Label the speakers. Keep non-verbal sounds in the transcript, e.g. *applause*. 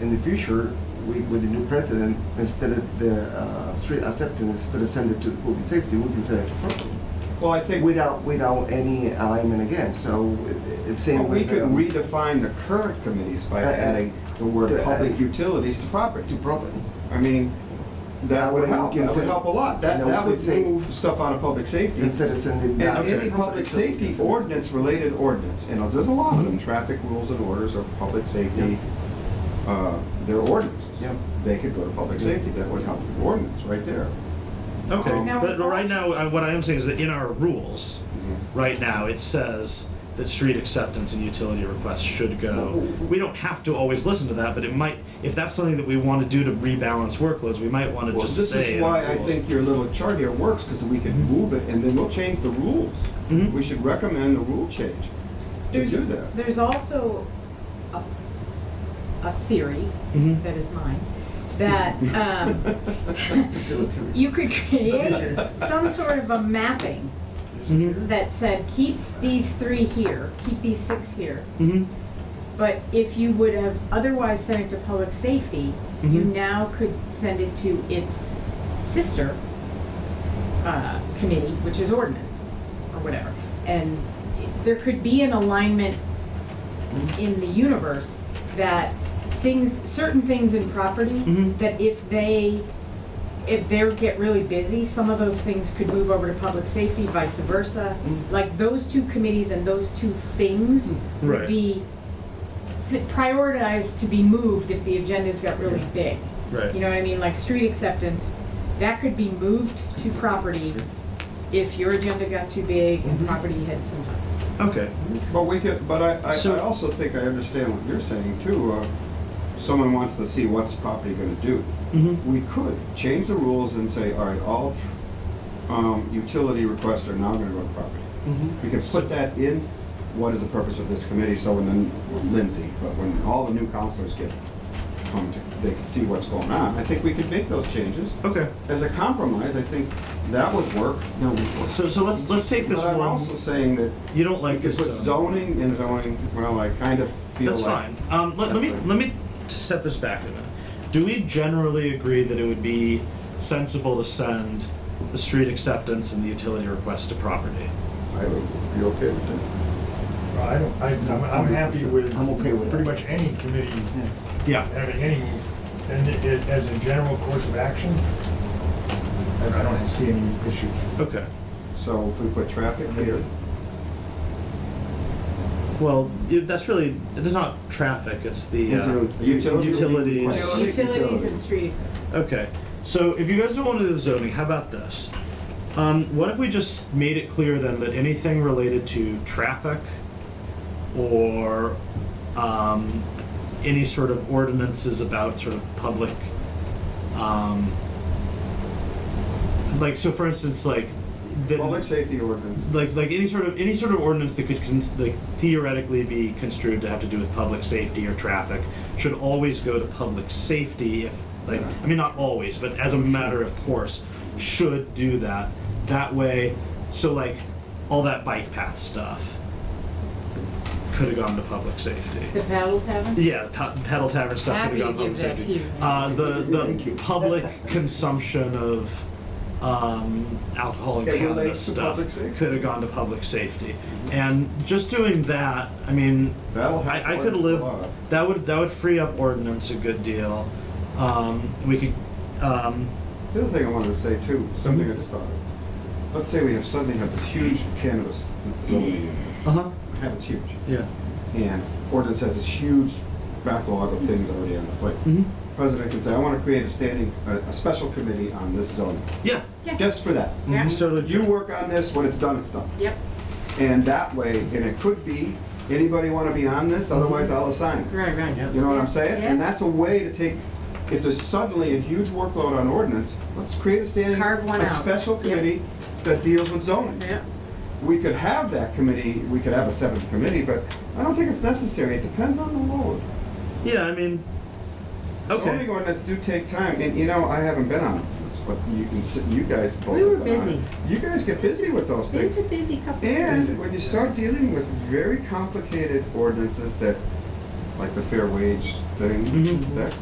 Speaker 1: in the future, we, with the new president, instead of the uh, street acceptance, instead of send it to the public safety, we can send it to property.
Speaker 2: Well, I think we
Speaker 1: Without, without any alignment again, so it- it's same with.
Speaker 2: could
Speaker 1: um,
Speaker 2: redefine the current committees by
Speaker 1: Uh, uh,
Speaker 2: adding the word
Speaker 1: uh,
Speaker 2: public utilities to property.
Speaker 1: To property.
Speaker 2: I mean, that
Speaker 1: That
Speaker 2: would
Speaker 1: way we
Speaker 2: help,
Speaker 1: can
Speaker 2: that would
Speaker 1: say-
Speaker 2: help a lot. That,
Speaker 1: that
Speaker 2: that
Speaker 1: we
Speaker 2: would
Speaker 1: could say-
Speaker 2: move stuff out of public safety.
Speaker 1: Instead of sending.
Speaker 2: And
Speaker 1: back to
Speaker 2: any
Speaker 1: the
Speaker 2: public
Speaker 1: so we can
Speaker 2: safety
Speaker 1: send it.
Speaker 2: ordinance, related ordinance, and there's a lot of
Speaker 1: Mm-hmm.
Speaker 2: them, traffic rules and orders are public safety, uh, they're ordinances.
Speaker 1: Yeah.
Speaker 2: They could go to public safety, that would help the ordinance right there.
Speaker 3: Okay,
Speaker 2: Um,
Speaker 4: Now,
Speaker 3: but
Speaker 4: we
Speaker 3: right
Speaker 4: also-
Speaker 3: now, I- what I am saying is that in our rules,
Speaker 2: Mm-hmm.
Speaker 3: right now, it says that street acceptance and utility requests should go. We don't have to always listen to that, but it might, if that's something that we want to do to rebalance workloads, we might want to
Speaker 2: Well,
Speaker 3: just
Speaker 2: this
Speaker 3: say.
Speaker 2: is
Speaker 3: in our
Speaker 2: why I
Speaker 3: rules.
Speaker 2: think your little chart here works, because we can move it and then we'll change the rules.
Speaker 3: Mhm.
Speaker 2: We should recommend a rule change to
Speaker 4: There's,
Speaker 2: do that.
Speaker 4: there's also a, a theory,
Speaker 3: Mhm.
Speaker 4: that is mine,
Speaker 2: *laughs*
Speaker 4: that, um,
Speaker 1: Still a theory.
Speaker 4: you could create some sort of a mapping
Speaker 3: Mhm,
Speaker 4: that said, keep these three here, keep these six here.
Speaker 3: mhm.
Speaker 4: But if you would have otherwise sent it to public safety, you
Speaker 3: Mhm.
Speaker 4: now could send it to its sister uh, committee, which is ordinance or whatever. And it- there could be an alignment in the universe that things, certain things in property,
Speaker 3: Mhm.
Speaker 4: that if they, if they get really busy, some of those things could move over to public safety, vice versa.
Speaker 1: Mm.
Speaker 4: Like those two committees and those two things
Speaker 3: Right.
Speaker 4: would be th- prioritized to be moved if the agendas got really big.
Speaker 3: Right.
Speaker 4: You know what I mean? Like street acceptance, that could be moved to property if your agenda got too big and
Speaker 2: Mm-hmm.
Speaker 1: Mhm.
Speaker 4: property had some.
Speaker 3: Okay,
Speaker 2: But we could, but I, I,
Speaker 3: So-
Speaker 2: I also think I understand what you're saying too. Uh, Someone wants to see what's property gonna do.
Speaker 3: mhm,
Speaker 1: Mm-hmm.
Speaker 2: We could change the rules and say, all right, all, um, utility requests are now gonna go to property.
Speaker 1: Mhm.
Speaker 2: We can put that in, what is the purpose of this committee, so when then Lindsay, but when all the new counselors get, come to, they can see what's going on. I think we could make those changes.
Speaker 3: okay.
Speaker 2: As a compromise, I think that would work.
Speaker 1: No, we-
Speaker 3: So, so let's, let's take this
Speaker 2: But I'm also
Speaker 3: one,
Speaker 2: saying that
Speaker 3: you don't
Speaker 2: we
Speaker 3: like
Speaker 2: could
Speaker 3: this
Speaker 2: put
Speaker 3: zone.
Speaker 2: zoning in zoning, well, I kind of feel
Speaker 3: That's
Speaker 2: like.
Speaker 3: fine. Um, let, let me,
Speaker 1: That's fine.
Speaker 3: let me step this back a minute. Do we generally agree that it would be sensible to send the street acceptance and the utility request to property?
Speaker 2: I would be okay with
Speaker 5: I don't, I, I'm, I'm happy with.
Speaker 1: I'm okay with
Speaker 5: Pretty
Speaker 1: that.
Speaker 5: much any committee
Speaker 1: yeah.
Speaker 3: Yeah.
Speaker 5: having any, and it, it- as a general course of action, I I don't see any issues.
Speaker 3: Okay.
Speaker 2: that. So if we put traffic here,
Speaker 3: Well, you- that's really, it's not traffic, it's the,
Speaker 1: It's
Speaker 3: uh,
Speaker 1: a-
Speaker 2: utility.
Speaker 3: Utilities.
Speaker 4: thought.
Speaker 2: Utilities.
Speaker 4: Utilities and street acceptance.
Speaker 3: okay. So if you guys don't want to do the zoning, how about this? Um, what if we just made it clear then that anything related to traffic or, um, any sort of ordinances about sort of public, um, like, so for instance, like, the.
Speaker 2: Public safety ordinance.
Speaker 3: like like any sort of any sort of ordinance that could cons- like theoretically be construed to have to do with public safety or traffic should always go to public safety if like I mean not always but as a matter of course should do that that way so like all that bike path stuff could have gone to public
Speaker 4: The
Speaker 3: safety
Speaker 4: paddle tavern?
Speaker 3: yeah the pa- pedal tavern stuff could have
Speaker 4: Happy to
Speaker 3: gone to public
Speaker 4: give that to
Speaker 3: safety
Speaker 4: you.
Speaker 3: uh, the
Speaker 1: Thank you.
Speaker 3: the public consumption of um, alcohol and
Speaker 2: It
Speaker 3: cannabis
Speaker 2: relates to
Speaker 3: stuff
Speaker 2: public safety.
Speaker 3: could have gone to public safety, and just doing that, I mean,
Speaker 2: That'll help
Speaker 3: I, I could
Speaker 2: ordinance a
Speaker 3: live.
Speaker 2: lot.
Speaker 3: That would that would free up ordinance a good deal. Um, we could. Um,
Speaker 2: The other thing I wanted to say too, something I just thought of. Let's say we have suddenly have this huge cannabis zoning.
Speaker 3: uh huh.
Speaker 2: Yeah, It's huge.
Speaker 3: Yeah.
Speaker 2: And ordinance has this huge backlog of things already on the plate.
Speaker 3: hmm
Speaker 2: President can say, I want to create a standing, a, a special committee on this zoning,
Speaker 3: Yeah.
Speaker 4: Yeah.
Speaker 2: just for that.
Speaker 4: Yeah.
Speaker 3: It's totally.
Speaker 2: You work on this, when it's done, it's done.
Speaker 4: Yep.
Speaker 2: And that way, and it could be, anybody want to be on this, otherwise I'll assign.
Speaker 4: Right, right.
Speaker 1: Yeah.
Speaker 2: You know what I'm saying? And
Speaker 4: Mm-hmm. Yeah.
Speaker 2: that's a way to take, if there's suddenly a huge workload on ordinance, let's create a standing,
Speaker 4: Carve one
Speaker 2: a
Speaker 4: out.
Speaker 2: special
Speaker 4: Yep.
Speaker 2: committee that deals with zoning.
Speaker 4: Yeah.
Speaker 2: We could have that committee, we could have a seventh committee, but I don't think it's necessary. It depends on the load.
Speaker 3: Yeah. I mean.
Speaker 2: Zoning
Speaker 3: Okay.
Speaker 2: ordinance do take time, and you know, I haven't been on this, but you can, s- you guys both.
Speaker 4: We were
Speaker 2: have been on it.
Speaker 4: busy.
Speaker 2: You guys get busy with those
Speaker 4: It's
Speaker 2: things.
Speaker 4: a busy couple.
Speaker 2: And when you start dealing with very complicated ordinances that
Speaker 3: like the fair wage thing,
Speaker 2: Mhm.
Speaker 3: that